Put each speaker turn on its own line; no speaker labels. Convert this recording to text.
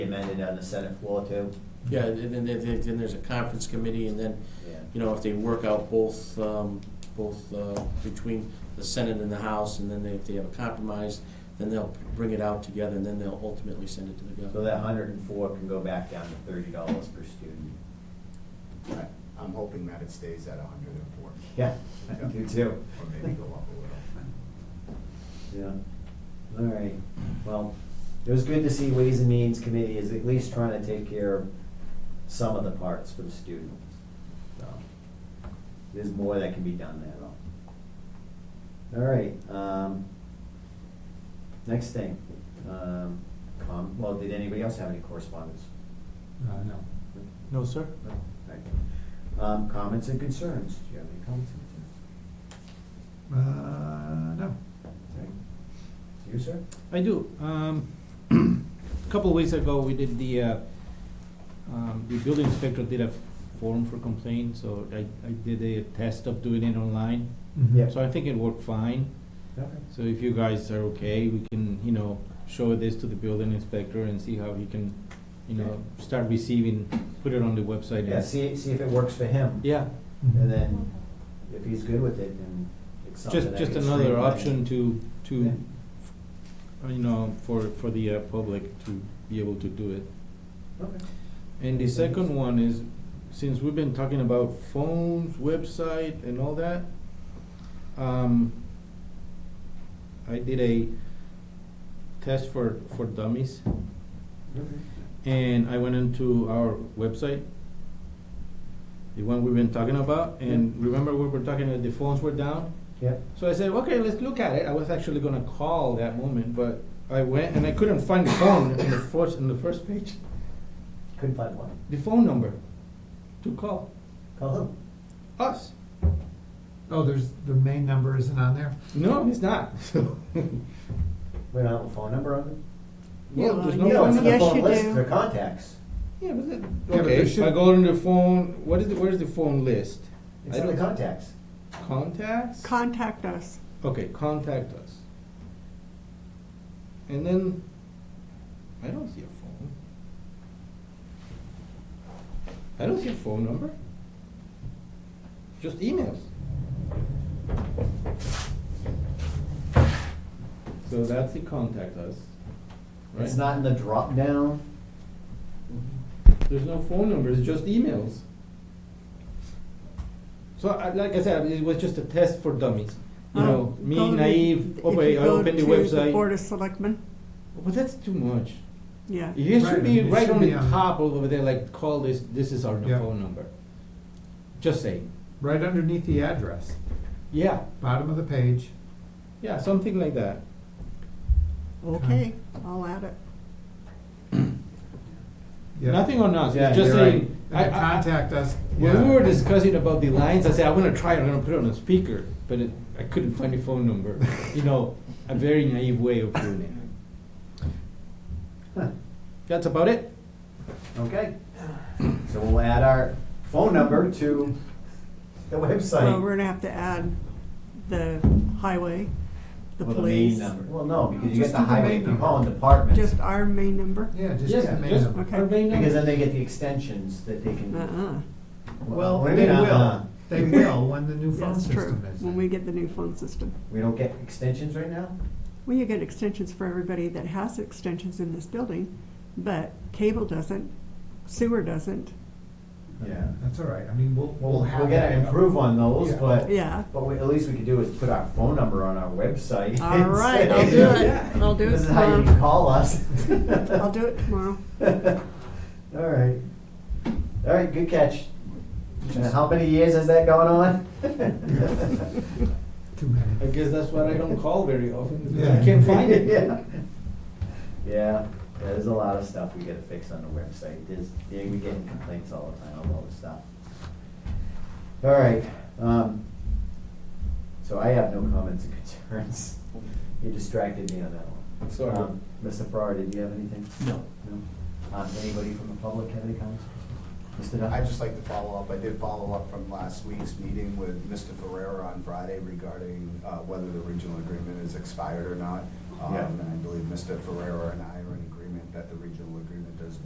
amended on the Senate floor too.
Yeah, and then, then, then there's a conference committee, and then,
Yeah.
you know, if they work out both, um, both, uh, between the Senate and the House, and then they, if they have a compromise, then they'll bring it out together, and then they'll ultimately send it to the
So
governor.
that hundred and four can go back down to thirty dollars per student.
I- I'm hoping that it stays at hundred and four,
Yeah, you too.
or maybe go up a little.
Yeah, all right, well, it was good to see Ways and Means Committee is at least trying to take care of some of the parts for the student. So, There's more that can be done there though. All right, um, next thing, um, com- well, did anybody else have any correspondence?
Uh, no. No, sir?
No? All right. Um, comments and concerns, do you have any comments and concerns?
Uh, no.
Okay. You, sir?
I do. Um, a couple of weeks ago, we did the, uh, um, the building inspector did a form for complaint, so I, I did a test of doing it online.
Yeah.
So I think it worked fine.
Okay.
So if you guys are okay, we can, you know, show this to the building inspector and see how he can, you know, start receiving, put it on the website. and-
Yeah, see, see if it works for him.
Yeah,
And then, if he's good with it, then it's something
just,
that
just
gets
another
streamlined.
option to,
Yeah.
to, you know, for, for the uh, public to be able to do it.
Okay.
And the second one is, since we've been talking about phones, website, and all that, um, I did a test for, for dummies, and I went into our website, the one we've been talking about, and remember we were talking that the phones were down?
Yep.
So I said, okay, let's look at it. I was actually gonna call that moment, but I went and I couldn't find the phone in the first, in the first page,
Couldn't find one.
the phone number to call
Call him.
us.
Oh, there's, the main number isn't on there?
No, it's not. So,
We don't have a phone number on it.
well,
Yeah,
uh,
there's
you
no
know,
phone number.
yes,
The phone
you
list,
do.
the contacts.
Yeah, but that,
but
okay,
there
if I
should-
go on the phone, what is the, where's the phone list?
It's
I
in the
don't-
contacts.
Contacts?
Contact us.
Okay, contact us. And then, I don't see a phone. I don't see a phone number. Just emails. So that's the contact us, right?
It's not in the drop down.
There's no phone numbers, just emails. So, I- like I said, it was just a test for dummies. You
Um,
know,
go
me
to the-
naive,
if
okay,
you
I
go
opened the
to
website.
Board of Selectmen,
But that's too much.
yeah.
It should
Right,
be
it
right
should
on the
be on-
top over there, like, call this, this is our
Yeah.
phone number. Just saying.
Right underneath the address,
Yeah,
bottom of the page.
yeah, something like that.
Okay, I'll add it.
Yep.
Nothing on us,
Yeah,
it's just
You're right.
saying. I-
And the
I-
contact us.
When
yeah.
we were discussing about the lines, I said, I'm gonna try it, I'm gonna put it on a speaker, but it, I couldn't find the phone number. You know, a very naive way of doing it.
Huh.
That's about it.
Okay. So we'll add our phone number to the
Well,
website.
we're gonna have to add the highway, the
Well, the main
police.
number.
Well, no, because you
Just
get the
do the
highway,
main
if you
number.
call them departments.
Just our main number?
Yeah, just
Yes,
the main
just-
number.
Okay.
Our main number.
Because then they get the extensions that they can.
Uh-uh,
Well,
what do you
they
mean, uh-uh?
will, they will when the new phone
that's true,
system is.
when we get the new phone system.
We don't get extensions right now?
Well, you get extensions for everybody that has extensions in this building, but cable doesn't, sewer doesn't,
Yeah.
That's all right, I mean, we'll,
We'll,
we'll have.
we'll gotta
that.
improve on those,
Yeah.
but.
yeah.
But what at least we could do is put our phone number on our website.
All
and
right, I'll
say,
do it, I'll do it
This is how you
tomorrow.
can call us.
I'll do it tomorrow.
All right. All right, good catch. Uh, How many years is that going on?
Too many.
I guess that's why I don't call very often, because I
Yeah.
can't find it.
Yeah, Yeah, there's a lot of stuff we gotta fix on the website. There's, yeah, we get complaints all the time on all this stuff. All right, um, so I have no comments and concerns. You distracted me on that one.
Sorry.
Um, Mr. Farrar, did you have anything?
No.
No? Um, anybody from the public have any comments? Mr. Duffy?
I'd just like to follow up, I did follow up from last week's meeting with Mr. Ferrera on Friday regarding uh, whether the regional agreement is expired or not. Um,
Yeah.
And I believe Mr. Ferrera and I are in agreement that the regional